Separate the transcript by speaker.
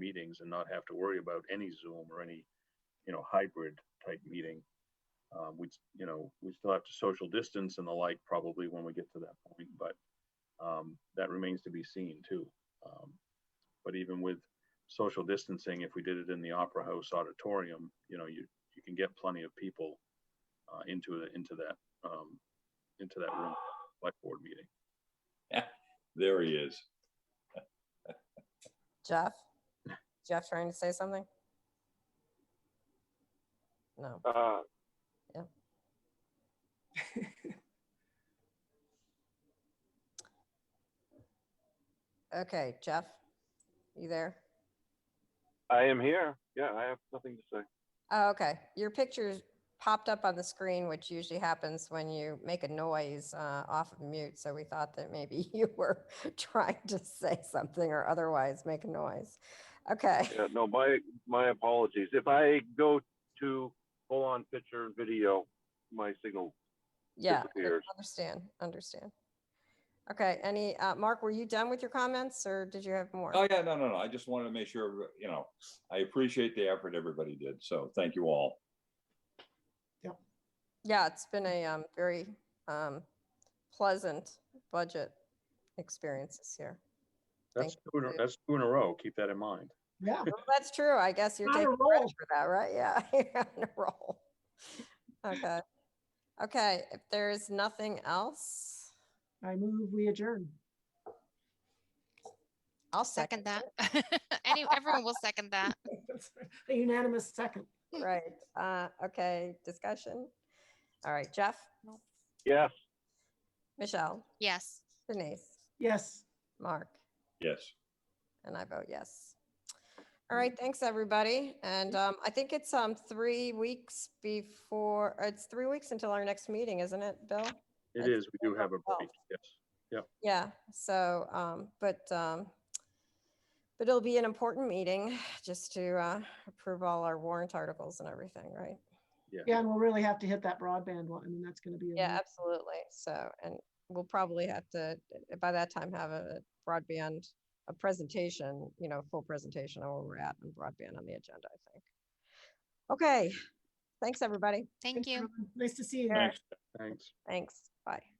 Speaker 1: meetings and not have to worry about any Zoom or any, you know, hybrid type meeting. Um, we, you know, we still have to social distance and the like probably when we get to that point, but um, that remains to be seen too. Um, but even with social distancing, if we did it in the Opera House auditorium, you know, you you can get plenty of people uh, into the into that um, into that room select board meeting.
Speaker 2: There he is.
Speaker 3: Jeff? Jeff trying to say something? No.
Speaker 4: Uh,
Speaker 3: Okay, Jeff, you there?
Speaker 4: I am here. Yeah, I have nothing to say.
Speaker 3: Oh, okay. Your pictures popped up on the screen, which usually happens when you make a noise uh, off of mute. So we thought that maybe you were trying to say something or otherwise make a noise. Okay.
Speaker 4: Yeah, no, my, my apologies. If I go to full-on picture and video, my signal
Speaker 3: Yeah,
Speaker 4: disappears.
Speaker 3: understand, understand. Okay, any, uh, Mark, were you done with your comments or did you have more?
Speaker 2: Oh, yeah, no, no, no. I just wanted to make sure, you know, I appreciate the effort everybody did. So thank you all.
Speaker 3: Yeah, it's been a um, very um, pleasant budget experience this year.
Speaker 1: That's
Speaker 3: Thank
Speaker 1: two, in a-
Speaker 3: you.
Speaker 1: that's two in a row. Keep that in mind.
Speaker 5: Yeah,
Speaker 3: Well, That's true. I guess you're
Speaker 5: On a
Speaker 3: taking credit
Speaker 5: roll.
Speaker 3: for that, right? Yeah, you're on a roll. Okay. Okay, if there is nothing else,
Speaker 5: I move, we adjourn.
Speaker 3: I'll
Speaker 6: Second
Speaker 3: second.
Speaker 6: that. Any, everyone will second that.
Speaker 5: A unanimous second.
Speaker 3: it. Right, uh, okay, discussion. All right, Jeff,
Speaker 4: Yes.
Speaker 3: Michelle,
Speaker 6: Yes.
Speaker 3: Denise,
Speaker 5: Yes.
Speaker 3: Mark,
Speaker 2: Yes.
Speaker 3: and I vote yes. All right, thanks, everybody. And um, I think it's um, three weeks before, uh, it's three weeks until our next meeting, isn't it, Bill?
Speaker 1: It
Speaker 3: That's
Speaker 1: is. We do have a break. Yes.
Speaker 3: Yeah, so, um, but, um, but it'll be an important meeting just to, uh, approve all our warrant articles and everything, right?
Speaker 5: Yeah, and we'll really have to hit that broadband one. I mean, that's gonna be. a
Speaker 3: Yeah,
Speaker 5: real-
Speaker 3: absolutely. So, and we'll probably have to, eh, by that time, have a broadband, a presentation, you know, full presentation on where we're at and broadband on the agenda, I think. Okay, thanks, everybody.
Speaker 6: Thank you.
Speaker 5: Thanks, everyone. Nice to see you.
Speaker 3: Sure.
Speaker 2: Thanks.
Speaker 1: Thanks.
Speaker 3: Thanks. Bye.